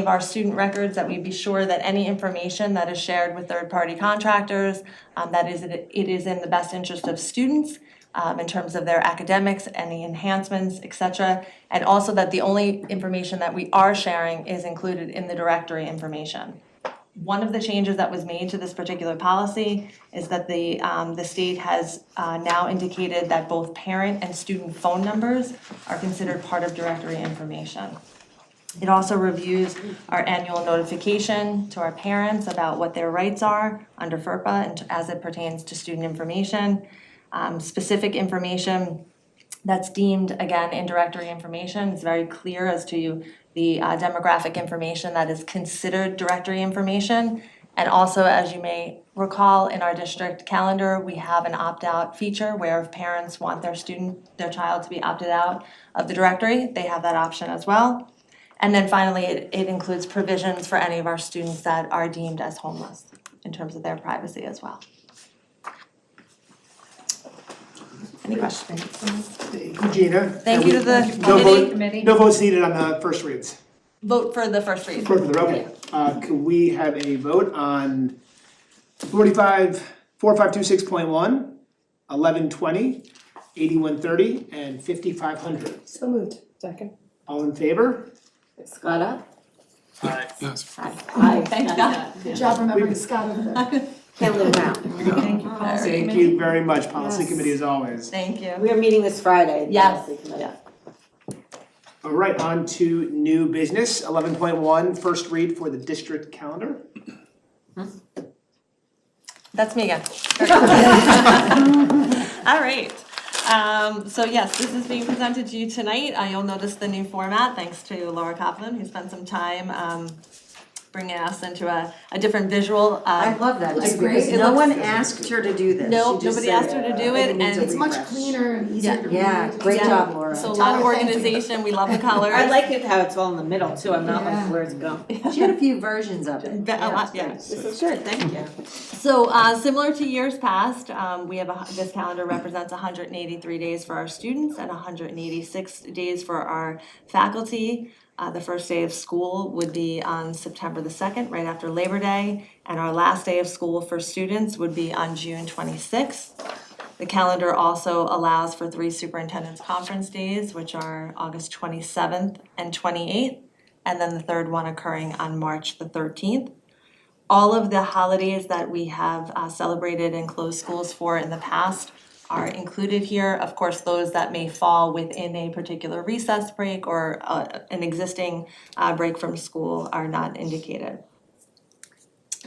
of our student records, that we be sure that any information that is shared with third-party contractors, um, that is, it is in the best interest of students um, in terms of their academics, any enhancements, et cetera. And also that the only information that we are sharing is included in the directory information. One of the changes that was made to this particular policy is that the, um, the state has, uh, now indicated that both parent and student phone numbers are considered part of directory information. It also reviews our annual notification to our parents about what their rights are under FERPA and as it pertains to student information. Um, specific information that's deemed, again, in directory information, it's very clear as to the uh, demographic information that is considered directory information. And also, as you may recall, in our district calendar, we have an opt-out feature where if parents want their student, their child to be opted out of the directory, they have that option as well. And then finally, it, it includes provisions for any of our students that are deemed as homeless in terms of their privacy as well. Any questions? Thank you, Gina. Thank you to the No vote- committee. Committee. No votes needed on the first reads. Vote for the first read. For the okay. Uh, could we have a vote on forty-five, four, five, two, six point one, eleven twenty, eighty-one thirty, and fifty-five hundred? So moved. Second. All in favor? Scotta? Aye. Yes, Aye. Thank Gotcha. Good job remembering Scott over there. Can't live down. Thank you, Mary. Thank you very much, policy Yes. committee as always. Thank you. We are meeting this Friday. the Yes. policy committee. All right, on to new business, eleven point one, first read for the district calendar. That's me again. All right. Um, so yes, this is being presented to you tonight. Uh, you'll notice the new format, thanks to Laura Kaplan, who spent some time, um, bringing us into a, a different visual, I uh, love that, Looks too, great. because It no looks- one asked her to do this. No, She just nobody said, asked her to do it, "It needs a and- It's much refresh." cleaner and easier to read. Yeah, great Yeah. job, Laura. so a lot of Tyler, thank you. organization, we love the colors. I like it how it's all in the middle too, I'm not like Yeah. where's it going. She had a few versions of it. Ve- a lot, yeah. This is good, thank you. So, uh, similar to years past, um, we have, a hu- this calendar represents hundred and eighty-three days for our students and hundred and eighty-six days for our faculty. Uh, the first day of school would be on September the second, right after Labor Day, and our last day of school for students would be on June twenty-sixth. The calendar also allows for three superintendent's conference days, which are August twenty-seventh and twenty-eighth, and then the third one occurring on March the thirteenth all of the holidays that we have uh, celebrated and closed schools for in the past are included here. Of course, those that may fall within a particular recess break or uh, an existing uh, break from school are not indicated.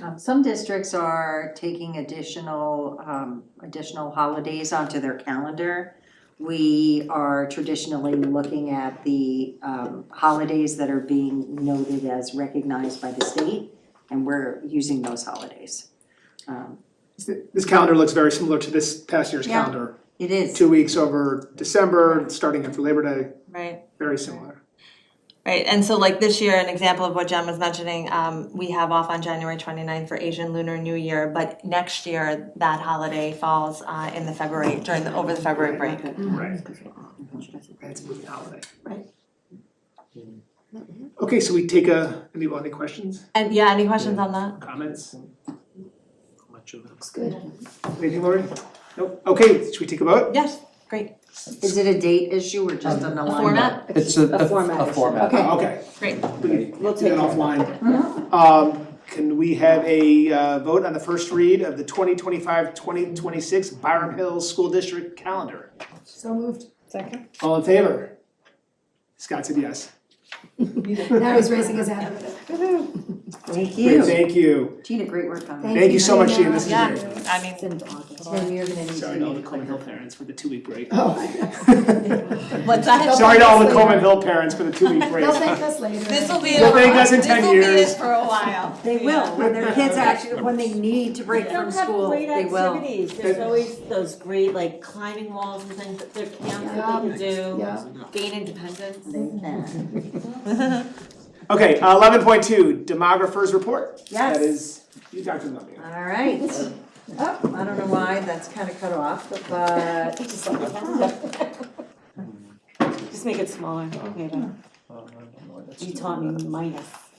Um, Some districts are taking additional, um, additional holidays onto their calendar. We are traditionally looking at the, um, holidays that are being noted as recognized by the state, and we're using those holidays. Um, This calendar looks very similar to this past year's Yeah. calendar. It is. Two weeks over December, starting after Labor Day, Right. very similar. Right, and so like this year, an example of what Jen was mentioning, um, we have off on January 29th for Asian Lunar New Year, but next year, that holiday falls uh, in the February, during the, over the February break. Right. That's a moving holiday. Right. Okay, so we take a, any, any questions, And yeah, any questions on that? comments? Looks good. Anything, Lori? Nope. Okay, should we take a vote? Yes, great, Is it a date issue or just an alignment? format? It's a, A a format a issue. format. Okay. Oh, Okay, great. we can We'll do take that it. offline. Um, can we have a, uh, vote on the first read of the 2025-2026 Byram Hills School District Calendar? So moved. Second. All in favor? Scott said yes. Now he's raising his hand. Woohoo. Thank Great, you. Thank you. Gina, great work on that. Thank you so much, Gina. This is Yeah, great. I mean, Tim, you're gonna need to Sorry to all the leave. Coleman Hill parents for the two-week break. What's that? Sorry to all the Coleman Hill parents for the two-week break. They'll thank us later. This will be You'll it. thank us in This 10 will be it years. for a while. They will, when their kids actually, when they need to break from school, They they will. don't have great activities, there's always those great like climbing walls and things that their camps that they can do, Yeah, gain independence. They can. Okay, uh, eleven point two, demographers report. Yes. That is, you talked about me. All right. Oh, I don't know why, that's kind of cut off, but. Just make it smaller, maybe. You taught me minus.